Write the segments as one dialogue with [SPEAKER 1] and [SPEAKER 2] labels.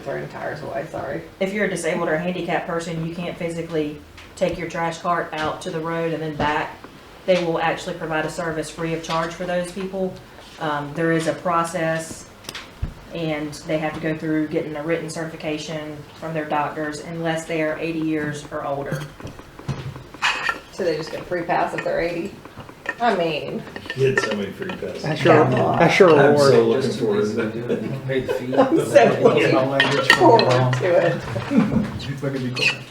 [SPEAKER 1] throwing tires away, sorry.
[SPEAKER 2] if you're a disabled or a handicapped person, you can't physically take your trash cart out to the road and then back. They will actually provide a service free of charge for those people. Um, there is a process and they have to go through getting a written certification from their doctors unless they are eighty years or older.
[SPEAKER 1] So they just get free pass if they're eighty? I mean,
[SPEAKER 3] Get so many free passes.
[SPEAKER 4] That's your, that's your
[SPEAKER 3] I'm so
[SPEAKER 4] reward.
[SPEAKER 3] looking
[SPEAKER 5] Just too
[SPEAKER 3] forward to
[SPEAKER 5] easy to
[SPEAKER 3] that.
[SPEAKER 5] do it. You can pay the fee.
[SPEAKER 1] I'm so looking
[SPEAKER 5] Yeah.
[SPEAKER 3] Oh,
[SPEAKER 1] forward to it.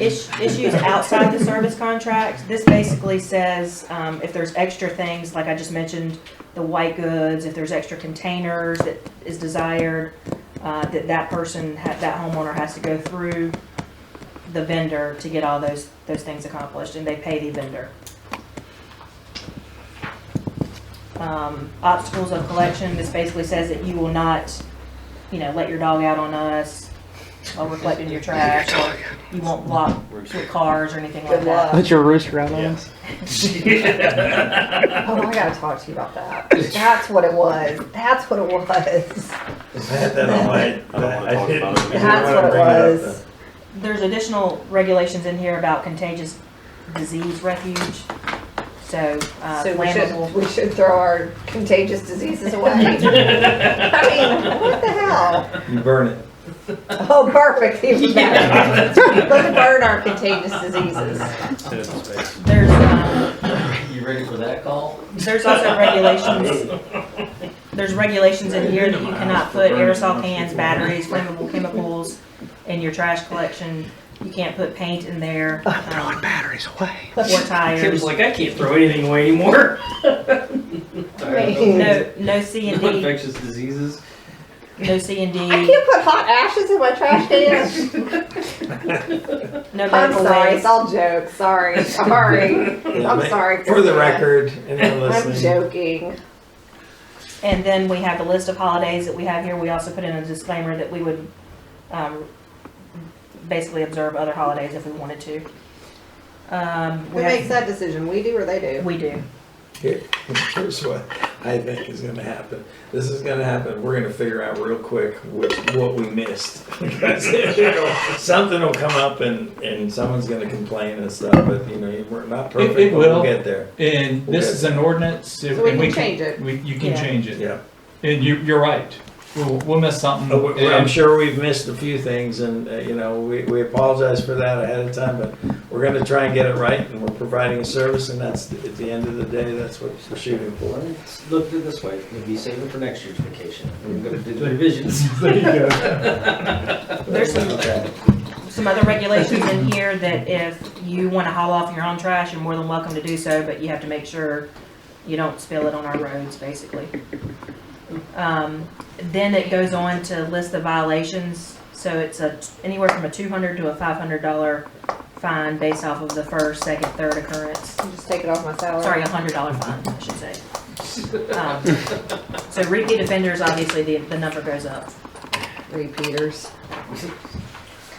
[SPEAKER 2] Is- Issues outside the service contract, this basically says, um, if there's extra things, like I just mentioned, the white goods, if there's extra containers that is desired, uh, that that person, ha- that homeowner has to go through the vendor to get all those, those things accomplished, and they pay the vendor. Um, obstacles of collection, this basically says that you will not, you know, let your dog out on us while we're collecting your trash, or you won't block your cars or anything like
[SPEAKER 1] Good
[SPEAKER 2] that.
[SPEAKER 1] luck.
[SPEAKER 4] Let your rooster out on
[SPEAKER 3] Yeah.
[SPEAKER 4] us.
[SPEAKER 1] Oh, I gotta talk to you about that. That's what it was. That's what it was.
[SPEAKER 3] I had that on my. I don't
[SPEAKER 6] wanna talk about it.
[SPEAKER 1] That's what it was.
[SPEAKER 2] There's additional regulations in here about contagious disease refuge, so, uh,
[SPEAKER 1] So we
[SPEAKER 2] flammable.
[SPEAKER 1] should, we should throw our contagious diseases away. I mean, what the hell?
[SPEAKER 3] You burn it.
[SPEAKER 1] Oh, perfect, even better. Let's burn our contagious diseases.
[SPEAKER 2] There's, um,
[SPEAKER 5] You ready for that call?
[SPEAKER 2] there's also regulations, there's regulations in here that you cannot put aerosol cans, batteries, flammable chemicals in your trash collection. You can't put paint in there, um,
[SPEAKER 4] Batteries away.
[SPEAKER 2] or tires.
[SPEAKER 6] Tim's like, I can't throw anything away anymore.
[SPEAKER 1] mean-
[SPEAKER 2] No, no C and
[SPEAKER 5] No
[SPEAKER 2] D,
[SPEAKER 5] infectious diseases.
[SPEAKER 2] no C and
[SPEAKER 1] I
[SPEAKER 2] D,
[SPEAKER 1] can't put hot ashes in my trash can.
[SPEAKER 2] no
[SPEAKER 1] I'm
[SPEAKER 2] medical
[SPEAKER 1] sorry, it's
[SPEAKER 2] waste.
[SPEAKER 1] all jokes. Sorry, sorry. I'm sorry,
[SPEAKER 3] For the
[SPEAKER 1] Christina.
[SPEAKER 3] record, anyone
[SPEAKER 1] I'm
[SPEAKER 3] listening,
[SPEAKER 1] joking.
[SPEAKER 2] And then we have a list of holidays that we have here. We also put in a disclaimer that we would, um, basically observe other holidays if we wanted to. Um,
[SPEAKER 1] Who
[SPEAKER 2] we
[SPEAKER 1] makes that
[SPEAKER 2] have,
[SPEAKER 1] decision? We do or they do?
[SPEAKER 2] we do.
[SPEAKER 3] here, here's what I think is gonna happen. This is gonna happen. We're gonna figure out real quick which, what we missed. Because it'll- Something will come up and, and someone's gonna complain and stuff, but you know, you- we're not perfect,
[SPEAKER 7] it
[SPEAKER 3] but we'll
[SPEAKER 7] will.
[SPEAKER 3] get there.
[SPEAKER 7] And this is an ordinance.
[SPEAKER 1] So we can change it.
[SPEAKER 7] We, you can
[SPEAKER 2] Yeah.
[SPEAKER 7] change it.
[SPEAKER 3] Yeah.
[SPEAKER 7] And you, you're right. We'll, we'll miss something.
[SPEAKER 3] Uh, we- I'm
[SPEAKER 7] and
[SPEAKER 3] sure we've missed a few things and, uh, you know, we, we apologize for that ahead of time, but we're gonna try and get it right and we're providing a service and that's, at the end of the day, that's what we're shooting for.
[SPEAKER 5] Let's look at it this way. We'll be saving for next year's vacation. We're gonna do the revisions.
[SPEAKER 2] There's some,
[SPEAKER 3] Okay.
[SPEAKER 2] some other regulations in here that if you wanna haul off your own trash, you're more than welcome to do so, but you have to make sure you don't spill it on our roads, basically. Um, then it goes on to list the violations, so it's a, anywhere from a two hundred to a five hundred dollar fine based off of the first, second, third occurrence.
[SPEAKER 1] I'll Just take it off my salary.
[SPEAKER 2] Sorry, a hundred dollar fine, I should say. Um, So repeat offenders, obviously, the, the number goes up.
[SPEAKER 1] Repeaters.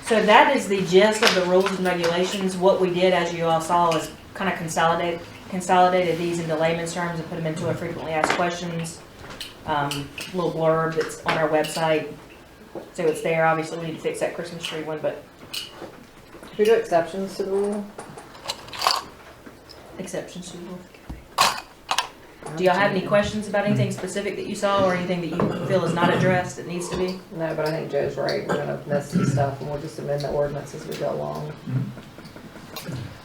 [SPEAKER 2] So that is the gist of the rules and regulations. What we did, as you all saw, is kind of consolidate, consolidated these into layman's terms and put them into a frequently asked questions, um, little blurb that's on our website. So it's there. Obviously, we need to fix that Christmas tree one, but
[SPEAKER 1] Should we do exceptions to the rule?
[SPEAKER 2] exceptions to the rule. Do y'all have any questions about anything specific that you saw or anything that you feel is not addressed that needs to be?
[SPEAKER 1] No, but I think Joe's right. We're gonna miss some stuff and we'll just amend the ordinance as we go along.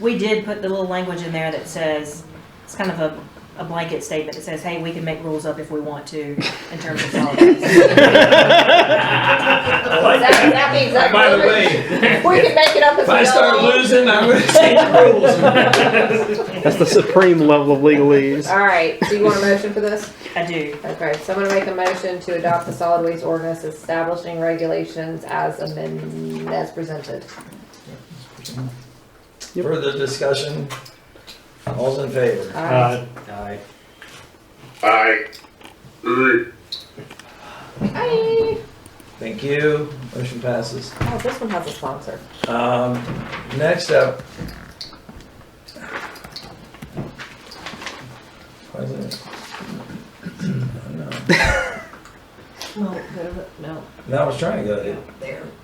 [SPEAKER 2] We did put the little language in there that says, it's kind of a, a blanket statement that says, hey, we can make rules up if we want to in terms of holidays.
[SPEAKER 3] I like
[SPEAKER 1] That-
[SPEAKER 3] that.
[SPEAKER 1] that means that-
[SPEAKER 3] By the way,
[SPEAKER 1] We can make it up as we go along.
[SPEAKER 3] if I start losing, I'm gonna change the rules.
[SPEAKER 4] That's the supreme level of legalese.
[SPEAKER 1] All right, so you want a motion for this?
[SPEAKER 2] I do.
[SPEAKER 1] Okay, so I'm gonna make a motion to adopt the solid waste ordinance establishing regulations as amended, as presented.
[SPEAKER 4] Yep.
[SPEAKER 3] Further discussion? All's in favor?
[SPEAKER 1] Aye.
[SPEAKER 5] Aye.
[SPEAKER 1] Aye.
[SPEAKER 3] Thank you. Motion passes.
[SPEAKER 1] Oh, this one has a sponsor.
[SPEAKER 3] Um, next up. Why is it? I don't know.
[SPEAKER 2] Well,
[SPEAKER 3] Go to the- No,
[SPEAKER 1] No, I was trying to go to
[SPEAKER 3] there.